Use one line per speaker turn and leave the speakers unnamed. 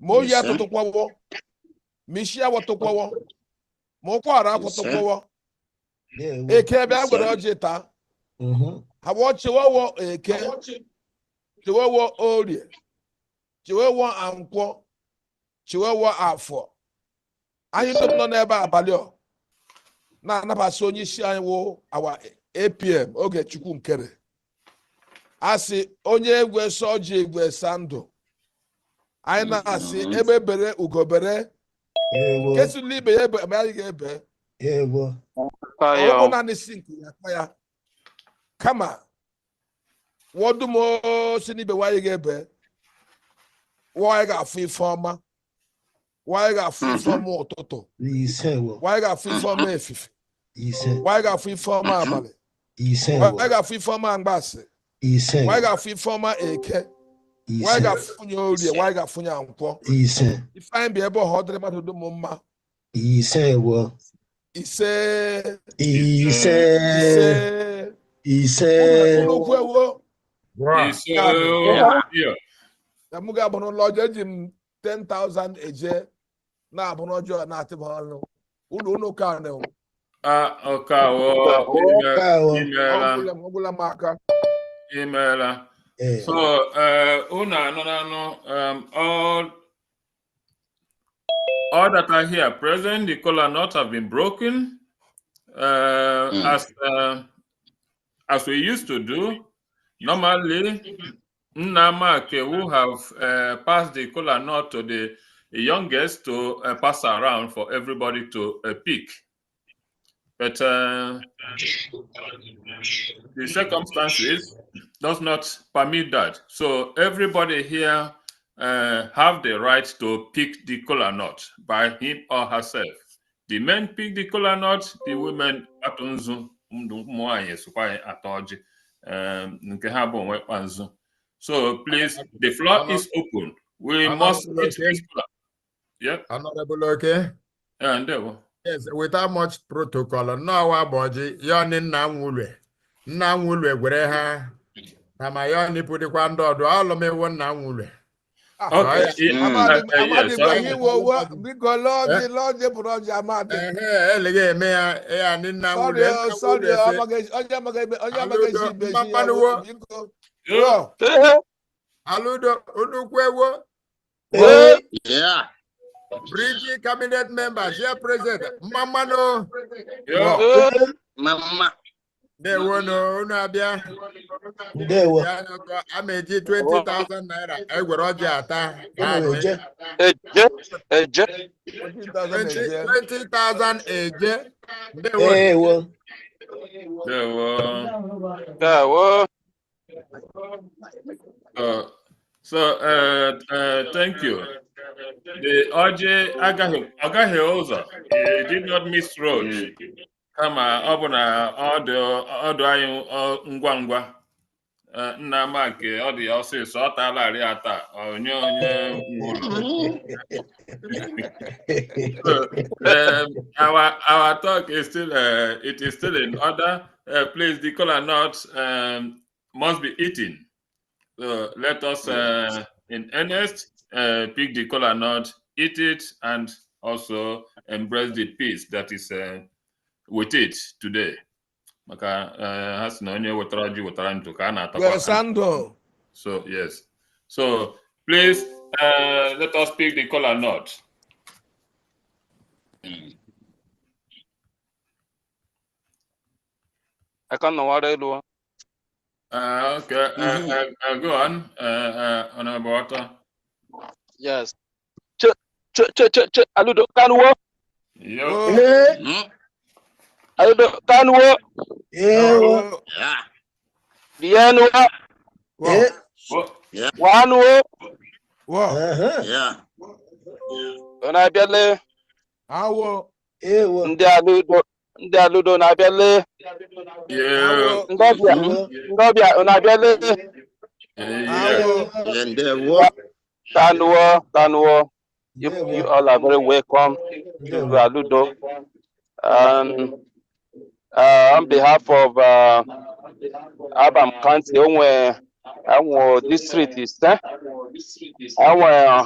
mo
Yes,
ya
sir.
toto kwawo mi shia woto kwawo mo kwara
Yes,
koto
sir.
kwawo
Yeah, we-
eke bia
Yes,
gboro
sir.
oje ta
Mhm.
hawo chewowo eke chewowo orie chewowo ankwo chewowo afọ anyị dum nọ n'ebe a abalị ọ na-anabasị onye isi anyị wụ awa apm oge chukwu nkere asị onye egwe sọ ji egwe sa ndụ anyị na-asị
Mm-hmm.
ebe bere ugobere
Yeah, we-
kesụla ibe ya ebe ma anyị ga-ebe
yeah, we-
ọ bụ naanị si nke ya akpa ya kama wọdụm o si n'ibe nwaanyị ga-ebe nwaanyị ga-afụ ife ọma nwaanyị ga-afụ ife ọma ụtụtụ
Ise wo.
nwaanyị ga-afụ ife ọma efife
Ise-
nwaanyị ga-afụ ife ọma abalị
ise wo.
nwaanyị ga-afụ ife ọma mgbasị
Ise
nwaanyị
wo.
ga-afụ ife ọma eke nwaanyị
Ise.
ga-afụnye orie nwaanyị ga-afụnye nkwọ
Ise.
ifeanyị bịa ebe ọha ọ dịrị mmadụ dum mma
Ise wo.
ise ise
Ise. Ise.
nnukwu ewo
Bruh.
Isso
Cara,
eu via.
na mụ ga-abụrụ ụlọ ọjọọ eji m 10,000 eje na-abụrụ ọjọọ na-atịba ọnụ ụlọ ụlọ ụka nụ
Ah, o caro,
Ka wo.
imela,
ọgwụla m aka
imela.
Eh,
So, uh, una, no, no, no, um, all, all that are here present, the collar knot have been broken, uh,
Mm.
as, uh, as we used to do. Normally, Nnama Akewu have uh, passed the collar knot to the youngest to uh, pass around for everybody to uh, pick. But uh, the circumstances does not permit that. So everybody here uh, have the right to pick the collar knot by him or herself. The men pick the collar knot, the women atụ nzu ndụ ụmụ nwanyị sokwa anyị atọ ọjị um, nke ha bụ onwe kpa nzu. So please, the floor is open. We
Anọ-
must
anọ-
hit this collar. Yep,
Honorable Oke,
and there. we-
yes, without much protocol, no waboji, yoni nna nwulwe. Nna nwulwe gwere ha, na ma yoni pụdịkwa ndị ọdụ, ọlụmewo nna nwulwe.
Ah,
Okay. yeah,
amadi
uh, uh,
amadi
yes,
gwa
okay.
ihe iwe owe
Eh.
biko lọọjị lọọjị bụrụ ọjị amadi
Ehe, eleghị eme ya, ya ni
sọrị
nna nwulwe.
o,
nna
sọrị
nwulwe
o,
sị,
amaghị- onye amaghị ebe onye amaghị ezi ibe ji ya
Mkpakpanuwo.
bụ biko rịọ
Aludo, nnukwu ewo,
eh,
Yeah.
Brigi cabinet members here present, mmamanụ,
Yeah.
Mama.
na-ewonu, unu abịa.
ndewo.
Ya n'ọkụ, a ma-eji 20,000 naira egwere ọjị ata.
Unu eje.
$14,000
Eh. 20,000 eje. Ndewo.
Eh, wo.
There were, uh, so, uh, uh, thank you. The OJ Agahi, Agahi Oza, he did not miss road. Kama, ọ bụ na ọ dị ọ dị anyị ọ, ngwa ngwa. Eh, Nna m nke ọ dị ya ọsịsọ, ọ taalarị ata, onye onye gwuru. Um, our our talk is still uh, it is still in order. Uh, please, the color nut um, must be eaten. So let us uh, in earnest uh, pick the color nut, eat it, and also embrace the peace that is uh, with it today. Maka uh, ha sị na onye wetara ji wetara ntụ ka a na-atakwa
were
aka.
sandụ
So yes. So please uh, let us pick the color nut.
aka nnọwara elu ha
Uh, okay, uh,
Mhm.
uh, uh, go on, uh, uh, Honorable Walter.
yes che che che che che aludo kanuwo
Yo,
Eh,
Mm.
aludo kanuwo
eh, wo.
Yeah.
dienuwa
Eh,
oh,
wanuwo Uh,
aha.
Yeah.
ọ na-abịale
awụ
Eh, wo.
ndị aludo ndị aludo na-abịale
yeah,
ndị ọbịa
Wo.
ndị ọbịa ọ na-abịale
yeah.
awụ
And uh, there were.
kanuwo kanuwo you,
Ndewo.
you all are very welcome to
Ndewo.
aludo um, uh, on behalf of uh, abam county eh? onwe onwe district ise onwe